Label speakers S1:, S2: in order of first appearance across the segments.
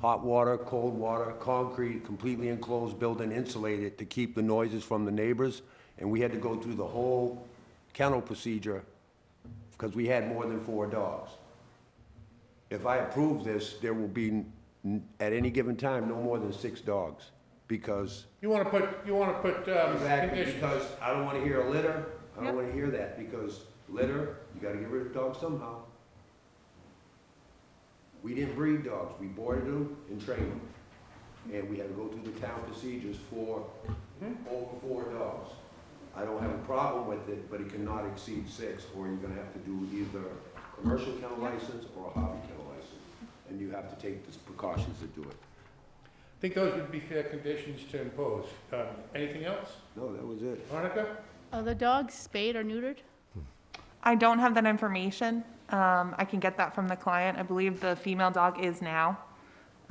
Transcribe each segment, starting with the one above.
S1: hot water, cold water, concrete, completely enclosed building, insulated to keep the noises from the neighbors. And we had to go through the whole kennel procedure because we had more than four dogs. If I approve this, there will be, n- at any given time, no more than six dogs because
S2: You wanna put, you wanna put, um,
S1: Exactly,
S2: conditions.
S1: because I don't wanna hear a litter, I
S3: Yep.
S1: don't wanna hear that, because litter, you gotta get rid of dogs somehow. We didn't breed dogs, we boarded them and trained them, and we had to go through the town procedures for
S4: Mm-hmm.
S1: over four dogs. I don't have a problem with it, but it cannot exceed six, or you're gonna have to do either commercial kennel license or a hobby kennel license, and you have to take the precautions to do it.
S2: I think those would be fair conditions to impose. Um, anything else?
S1: No, that was it.
S2: Veronica?
S3: Are Uh, the dogs spayed or neutered?
S4: I don't have that information. Um, I can get that from the client. I believe the female dog is now,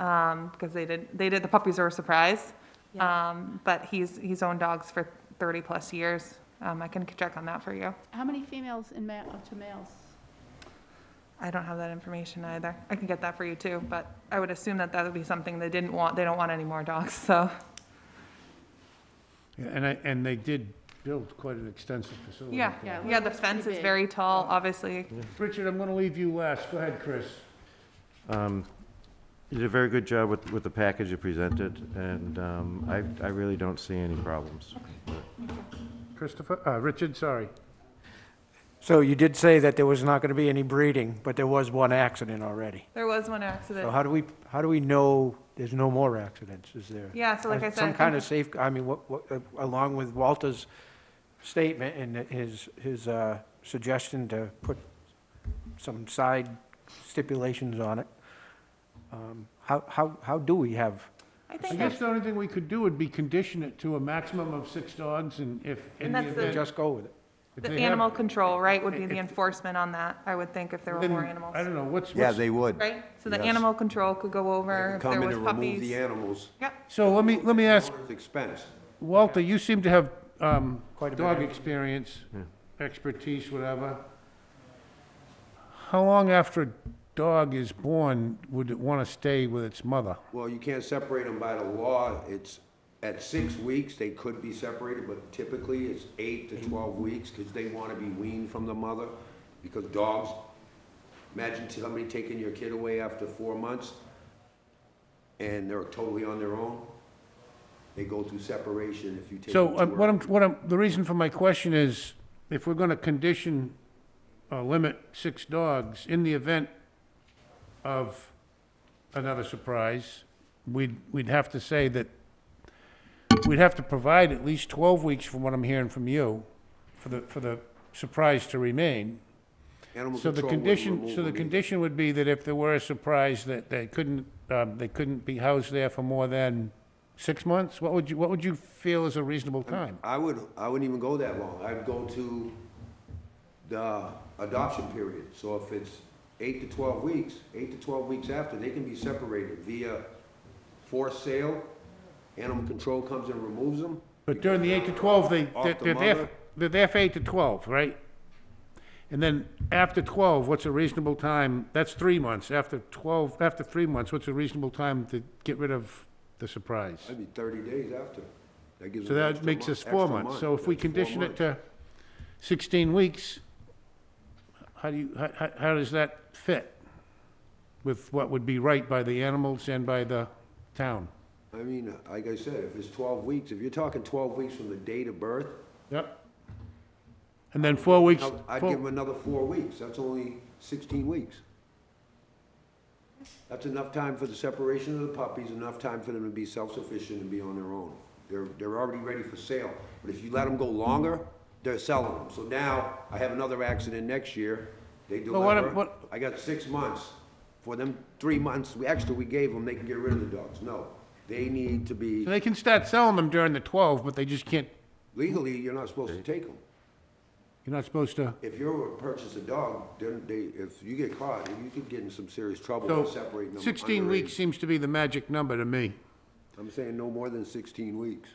S4: um, because they did, they did, the puppies are a surprise.
S3: Yeah.
S4: Um, but he's, he's owned dogs for thirty-plus years. Um, I can check on that for you.
S3: How many females in ma, up to males?
S4: I don't have that information either. I can get that for you too, but I would assume that that would be something they didn't want, they don't want any more dogs, so.
S2: Yeah, and I, and they did build quite an extensive facility.
S4: Yeah,
S2: for
S3: Yeah,
S2: it.
S3: well,
S4: yeah, the
S3: that's pretty
S4: fence is
S3: big.
S4: very tall, obviously.
S2: Richard, I'm gonna leave you last. Go ahead, Chris.
S5: Um, You did a very good job with, with the package you presented, and um, I, I really don't see any problems.
S2: Christopher, uh, Richard, sorry.
S6: So you did say that there was not going to be any breeding, but there was one accident already.
S4: There was one
S6: So
S4: accident.
S6: how do we, how do we know there's no more accidents? Is there?
S4: Yeah, so like I said. I
S6: Some
S4: think-
S6: kind of safe, I mean, what, what, uh, along with Walter's statement and his, his, uh, suggestion to put some side stipulations on it. um, How, how, how do we have,
S4: I
S2: I
S4: think,
S2: guess
S4: it's-
S2: the only thing we could do would be condition it to a maximum of six dogs and if. in
S4: And
S2: the
S4: that's the-
S2: event-
S6: just go with it?
S2: if
S4: the
S2: they have-
S4: animal control, right, would be
S2: If-
S4: the enforcement on that, I would think, if there were
S2: then,
S4: more
S2: I
S4: animals.
S2: don't know, what's,
S1: Yeah,
S2: what's,
S1: they would.
S4: Right? So the
S1: Yes.
S4: animal control could go over, if there
S1: Come in
S4: was
S1: to remove the
S4: puppies.
S1: animals.
S4: Yep,
S2: so let me, let me ask
S1: Owner's Expense.
S2: Walter, you seem to have um,
S6: Quite a bit
S2: dog
S6: of-
S2: experience, expertise, whatever. How long after a dog is born would it want to stay with its mother?
S1: Well, you can't separate them by the law. It's, at six weeks, they could be separated, but typically it's eight to 12 weeks because they want to be weaned from the mother. Because dogs, imagine somebody taking your kid away after four months and they're totally on their own. They go through separation if you take them
S2: So
S1: to
S2: uh, what
S1: work.
S2: I'm, what I'm, the reason for my question is, if we're going to condition or limit six dogs in the event of another surprise, we'd, we'd have to say that, we'd have to provide at least 12 weeks from what I'm hearing from you, for the, for the surprise to remain.
S1: Animal
S2: So the
S1: control wouldn't
S2: condition,
S1: remove
S2: so the
S1: them either.
S2: condition would be that if there were a surprise, that they couldn't, um, they couldn't be housed there for more than six months? What would you, what would you feel is a reasonable time?
S1: I would, I wouldn't even go that long. I'd go to the adoption period. So if it's eight to twelve weeks, eight to twelve weeks after, they can be separated via forced sale. Animal control comes and removes them.
S2: But during the eight to twelve, they,
S1: Off
S2: they're
S1: the
S2: they're there,
S1: mother.
S2: for- they're there for eight to twelve, right? And then after twelve, what's a reasonable time? That's three months. After twelve, after three months, what's a reasonable time to get rid of the surprise?
S1: That'd be thirty days after. That gives
S2: So
S1: them an
S2: that
S1: extra
S2: makes
S1: mon-
S2: us four
S1: extra
S2: months.
S1: month.
S2: So if we
S1: That's four
S2: condition it
S1: months.
S2: to sixteen weeks, how do you, how- how, how does that fit with what would be right by the animals and by the town?
S1: I mean, uh, like I said, if it's twelve weeks, if you're talking twelve weeks from the date of birth,
S2: Yep. And then four weeks,
S1: I'd I'd
S2: four-
S1: give them another four weeks. That's only sixteen weeks. That's enough time for the separation of the puppies, enough time for them to be self-sufficient and be on their own. They're, they're already ready for sale. But if you let them go longer, they're selling them. So now I have another accident next year. They
S2: Well, what-
S1: deliver.
S2: what-
S1: I got six months. For them, three months, we extra we gave them, they can get rid of the dogs. No, they need to be,
S2: So they can start selling them during the 12, but they just can't,
S1: legally, you're not supposed to take them.
S2: you're not supposed to.
S1: If you purchase a dog, then they, if you get caught, you could get in some serious trouble
S2: So
S1: for separating them.
S2: 16
S1: underage.
S2: weeks seems to be the magic number to me.
S1: I'm saying no more than sixteen weeks.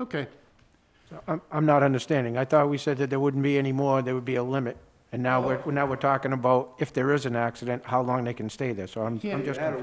S2: Okay.
S6: I'm, I'm not understanding. I thought we said that there wouldn't be any more, there would be a limit. And now we're, now we're talking about if there is an accident, how long they can stay there. So I'm,
S2: Yeah.
S6: I'm just
S1: Matter